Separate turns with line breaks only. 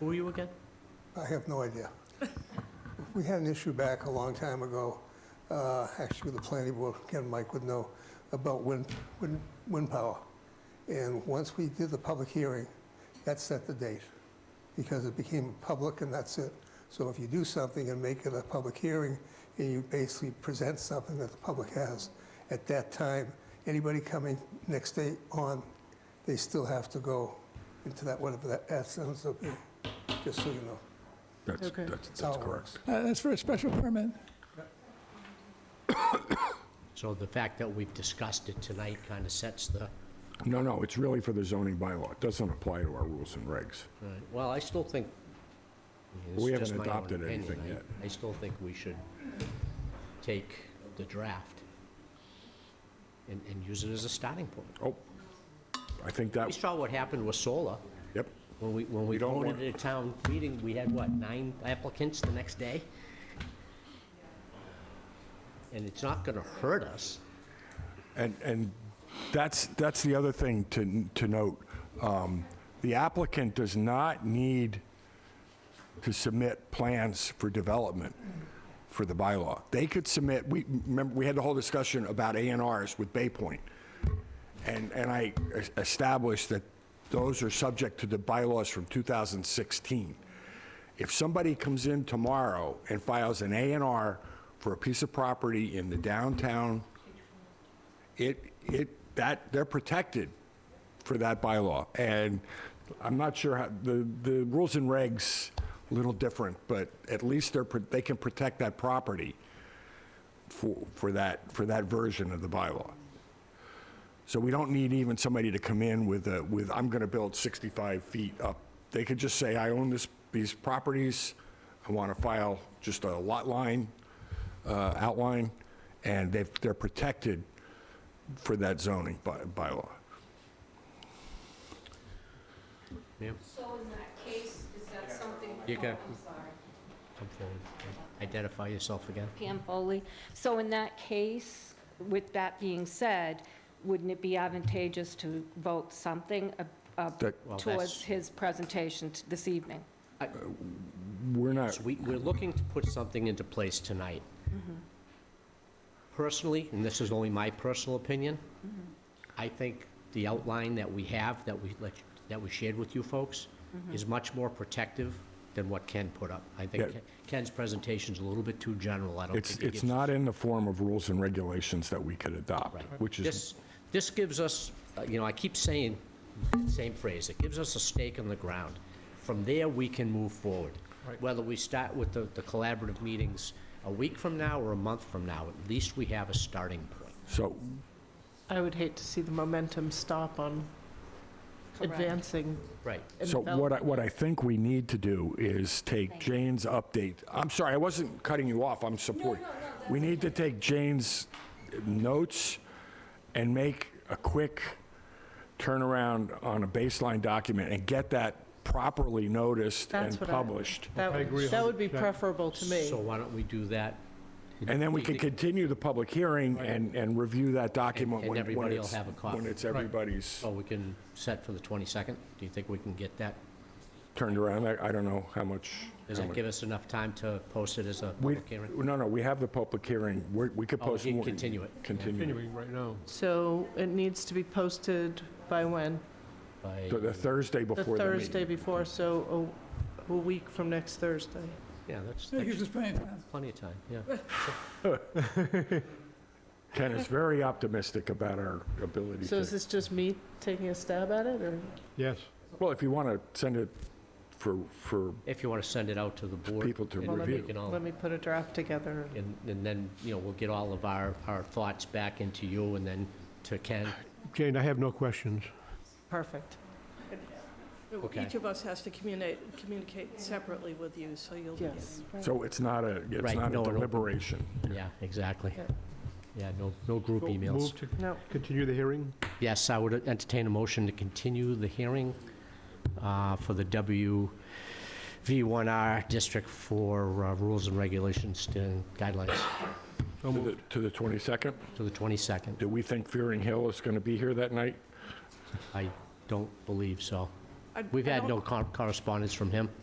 Who are you again?
I have no idea. We had an issue back a long time ago, uh, actually with the planning board, again, Mike would know, about wind, wind, wind power. And once we did the public hearing, that set the date, because it became public and that's it. So if you do something and make it a public hearing, and you basically present something that the public has, at that time, anybody coming next day on, they still have to go into that, whatever that, that ends up being, just so you know.
That's,
Okay.
that's,
how
that's
it
correct.
Uh, That's for a special permit.
So the fact that we've discussed it tonight kind of sets the, uh,
No, no, it's really for the zoning bylaw. It doesn't apply to our rules and regs.
Right. well, I still think. it's
We
just
haven't
my own
adopted
opinion.
anything
I-
yet.
I still think we should take the draft and, and use it as a starting point.
Oh, I think
We
that,
saw what happened with solar.
yep,
When we, when we
We don't
voted
want-
at a town meeting, we had, what, nine applicants the next day? And it's not gonna hurt us.
and, and that's, that's the other thing to, to note. Um, The applicant does not need to submit plans for development for the bylaw. They could submit, we, remember, we had the whole discussion about A and Rs with Bay Point. And, and I es- established that those are subject to the bylaws from 2016. If somebody comes in tomorrow and files an A and R for a piece of property in the downtown, it, it, that, they're protected for that bylaw. And I'm not sure how, the, the rules and regs, a little different, but at least they're, pro- they can protect that property for, for that, for that version of the bylaw. So we don't need even somebody to come in with a, with, I'm gonna build 65 feet up. They could just say, I own this, these properties, I wanna file just a lot line, uh, outline, and they've, they're protected for that zoning by, bylaw.
So in that case, is that something?
You can-
I'm sorry.
Come forward, identify yourself again.
Pam Foley. So in that case, with that being said, wouldn't it be advantageous to vote something uh, uh,
That-
Well, that's-
towards his presentation t- this evening?
We're not,
So we, we're looking to put something into place tonight.
Mm-hmm.
Personally, and this is only my personal opinion,
Mm-hmm.
I think the outline that we have, that we let, that we shared with you folks, is much more protective than what Ken put up. I think
Mm-hmm. Yeah.
Ken's presentation's a little bit too general, I don't
it's,
think it
it's
gives...
not in the form of rules and regulations that we could adopt,
Right.
which is,
This, this gives us, uh, you know, I keep saying the same phrase, it gives us a stake in the ground. From there, we can move forward. Whether we start with the, the collaborative meetings a week from now or a month from now, at least we have a starting point.
so,
I would hate to see the momentum stop on advancing
Right.
and
so what I,
development.
what I think we need to do is take Jane's update. I'm sorry, I wasn't cutting you off, I'm supporting. We need to take Jane's notes and make a quick turnaround on a baseline document and get that properly noticed
That's
and
what I-
published.
That would- that would be preferable to
So
me.
why don't we do that?
And then we can continue the public hearing and, and review that document
And- and
when, when
everybody will
it's,
have a copy.
when it's everybody's
So Oh, we can set for the 22nd? Do you think we can get that?
turned around. I, I don't know how much.
Does
how
that
much-
give us enough time to post it as a
We,
public hearing?
no, no, we have the public hearing. We're, we could
Oh, we
post
can
more.
continue it.
Continue.
Continuing right now.
So it needs to be posted by when?
By,
The, the Thursday
The
before the meeting.
Thursday before, so a, a week from next Thursday.
yeah, that's
That gives
that's
us plenty of time.
plenty of time, yeah.
Ken is very optimistic about our ability
So is
to.
this just me taking a stab at it, or?
Yes.
Well, if you want to send it for, for,
If you want to send it out to the board.
people to
and
Well,
we
let me-
review.
can all-
Let me put a draft together.
And, and then, you know, we'll get all of our, our thoughts back into you and then to Ken.
Jane, I have no questions.
Perfect.
Okay.
Each of us has to communicate, communicate separately with you, so you'll be
Yes.
getting
so it's not a, it's
Right,
not
no,
a
it'll-
deliberation.
Yeah, exactly.
Yeah.
Yeah, no, no group
So
emails.
Move to
No.
continue the hearing?
Yes, I would entertain a motion to continue the hearing uh, for the WV1R District for uh, Rules and Regulations and Guidelines
So
To
moved.
the- To the 22nd?
to the 22nd.
Do we think Fearing Hill is going to be here that night?
I don't believe so.
I-
We've
I
had no
don't-
cor- correspondence from him,